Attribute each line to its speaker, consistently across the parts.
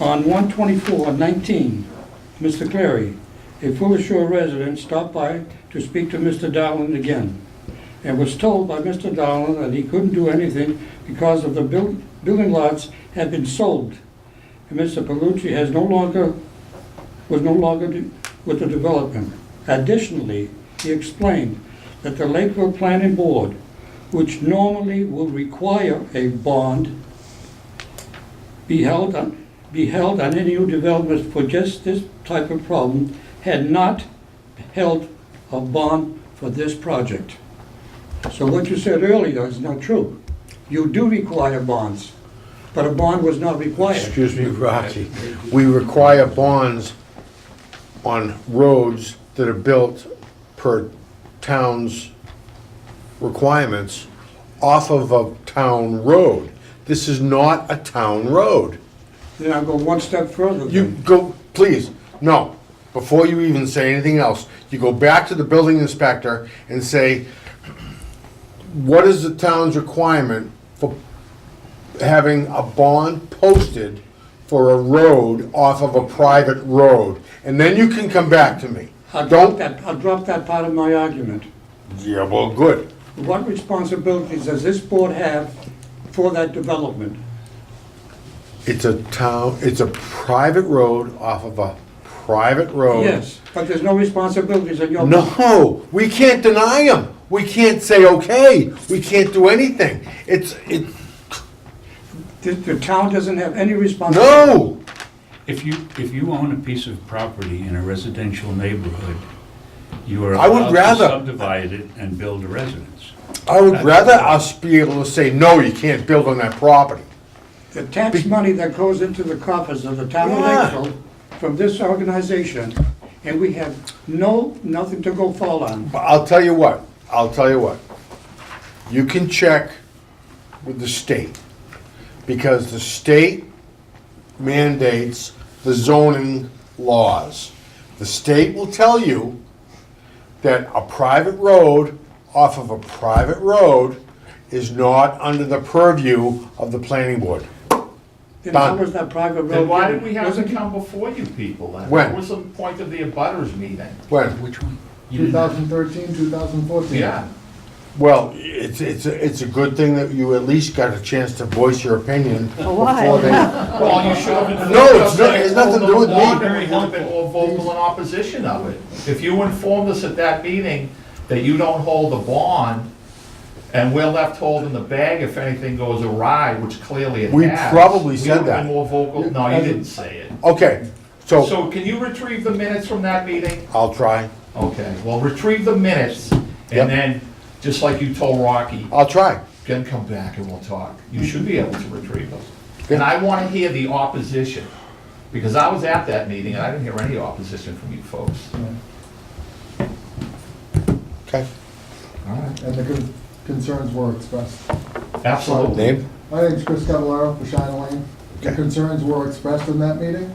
Speaker 1: On 124-19, Mr. Clary, a Fuller Shore resident, stopped by to speak to Mr. Dowland again and was told by Mr. Dowland that he couldn't do anything because of the buil- building lots had been sold. And Mr. Palucci has no longer, was no longer de- with the development. Additionally, he explained that the Lakeville Planning Board, which normally will require a bond, be held on, be held on any new developments for just this type of problem, had not held a bond for this project. So what you said earlier is not true. You do require bonds, but a bond was not required.
Speaker 2: Excuse me, Rocky. We require bonds on roads that are built per town's requirements off of a town road. This is not a town road.
Speaker 1: Then I'll go one step further.
Speaker 2: You
Speaker 1: then.
Speaker 2: go, please, no, before you even say anything else, you go back to the building inspector and say, what is the town's requirement for having a bond posted for a road off of a private road? And then you can come back to me.
Speaker 1: I'll drop
Speaker 2: Don't,
Speaker 1: that, I'll drop that part of my argument.
Speaker 2: yeah, well, good.
Speaker 1: What responsibilities does this board have for that development?
Speaker 2: It's a town, it's a private road off of a private road.
Speaker 1: Yes, but there's no responsibilities on your.
Speaker 2: Oh. No, we can't deny them. We can't say, okay, we can't do anything. It's, it,
Speaker 1: The, the town doesn't have any responsibility.
Speaker 2: no.
Speaker 3: If you, if you own a piece of property in a residential neighborhood, you are
Speaker 2: I would
Speaker 3: allowed to
Speaker 2: rather-
Speaker 3: subdivide it and build a residence.
Speaker 2: I would rather us be able to say, no, you can't build on that property.
Speaker 1: The tax money that goes into the coffers of the town of
Speaker 2: Yeah.
Speaker 1: Lakeville from this organization, and we have no, nothing to go fall on.
Speaker 2: But I'll tell you what, I'll tell you what. You can check with the state, because the state mandates the zoning laws. The state will tell you that a private road off of a private road is not under the purview of the planning board.
Speaker 1: Then how
Speaker 2: Done.
Speaker 1: was that private road?
Speaker 4: Then why
Speaker 1: given?
Speaker 4: did we have to
Speaker 1: Wasn't-
Speaker 4: come before you people then?
Speaker 2: When?
Speaker 4: What was the point of the abutters meeting?
Speaker 2: When,
Speaker 3: Which one? You didn't-
Speaker 5: 2013, 2014.
Speaker 4: Yeah,
Speaker 2: well, it's, it's, a- it's a good thing that you at least got a chance to voice your opinion before they,
Speaker 4: well, you should have been.
Speaker 2: No, it's not- it has nothing to do with me.
Speaker 4: Very been more vocal in opposition of it. If you informed us at that meeting that you don't hold a bond, and we're left holding the bag if anything goes awry, which clearly it has.
Speaker 2: We probably said
Speaker 4: We would have
Speaker 2: that.
Speaker 4: been more vocal, no, you didn't say it.
Speaker 2: okay, so
Speaker 4: So can you retrieve the minutes from that meeting?
Speaker 2: I'll try.
Speaker 4: Okay, well, retrieve the minutes, and
Speaker 2: Yep.
Speaker 4: then, just like you told Rocky,
Speaker 2: I'll try.
Speaker 4: then come back and we'll talk. You should be able to retrieve them. And I want to hear the opposition, because I was at that meeting, and I didn't hear any opposition from you folks.
Speaker 2: Okay.
Speaker 4: All right.
Speaker 5: And the con- concerns were expressed.
Speaker 4: Absolutely.
Speaker 2: Name?
Speaker 5: My name's Chris Cavallaro for Shine Lane. The
Speaker 2: Okay.
Speaker 5: concerns were expressed in that meeting,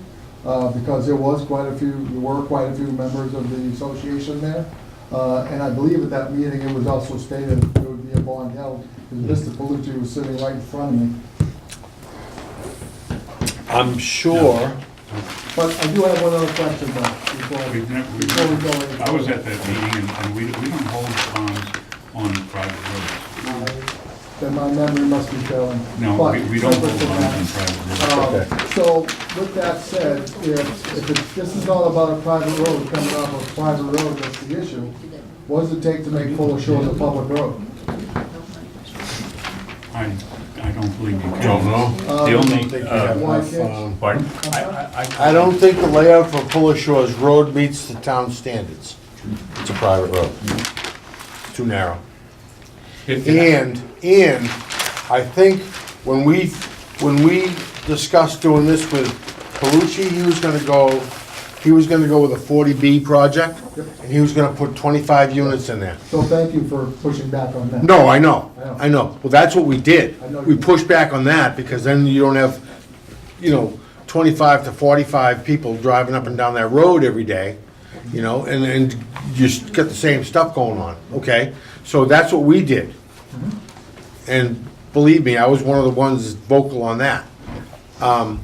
Speaker 5: uh, because there was quite a few, there were quite a few members of the association there. Uh, and I believe at that meeting, it was also stated there would be a bond held, because Mr. Palucci was sitting right in front of me.
Speaker 2: I'm sure.
Speaker 5: But I do have one other question, though, before.
Speaker 6: We've never, we've
Speaker 5: before we go
Speaker 6: never,
Speaker 5: any
Speaker 6: I was
Speaker 5: further.
Speaker 6: at that meeting, and, and we, we don't hold bonds on private
Speaker 5: Then my memory must be failing.
Speaker 6: roads. No,
Speaker 5: But
Speaker 6: we, we don't
Speaker 5: separate
Speaker 6: hold
Speaker 5: from that,
Speaker 6: bonds on private roads.
Speaker 5: Um,
Speaker 2: Okay.
Speaker 5: So with that said, if, if it's, this is all about a private road, coming off a private road, that's the issue. What does it take to make Fuller Shores a public road?
Speaker 6: I,
Speaker 5: Uh,
Speaker 6: I don't believe you can.
Speaker 2: Don't know.
Speaker 3: The only, uh,
Speaker 5: Why can't-
Speaker 3: pardon? I- I-
Speaker 2: I don't think the layout for Fuller Shores Road meets the town standards. It's a private road. Too narrow.
Speaker 3: If-
Speaker 2: And, and I think when we, when we discussed doing this with Palucci, he was gonna go, he was gonna go with a forty B project, and he was gonna put twenty-five units in there.
Speaker 5: So thank you for pushing back on that.
Speaker 2: No, I know,
Speaker 5: I know.
Speaker 2: I know. Well, that's what we did.
Speaker 5: I know you
Speaker 2: We
Speaker 5: did.
Speaker 2: pushed back on that, because then you don't have, you know, twenty-five to forty-five people driving up and down that road every day, you know, and, and you s- got the same stuff going on, okay? So that's what we did.
Speaker 5: Mm-hmm.
Speaker 2: And believe me, I was one of the ones vocal on that. Um,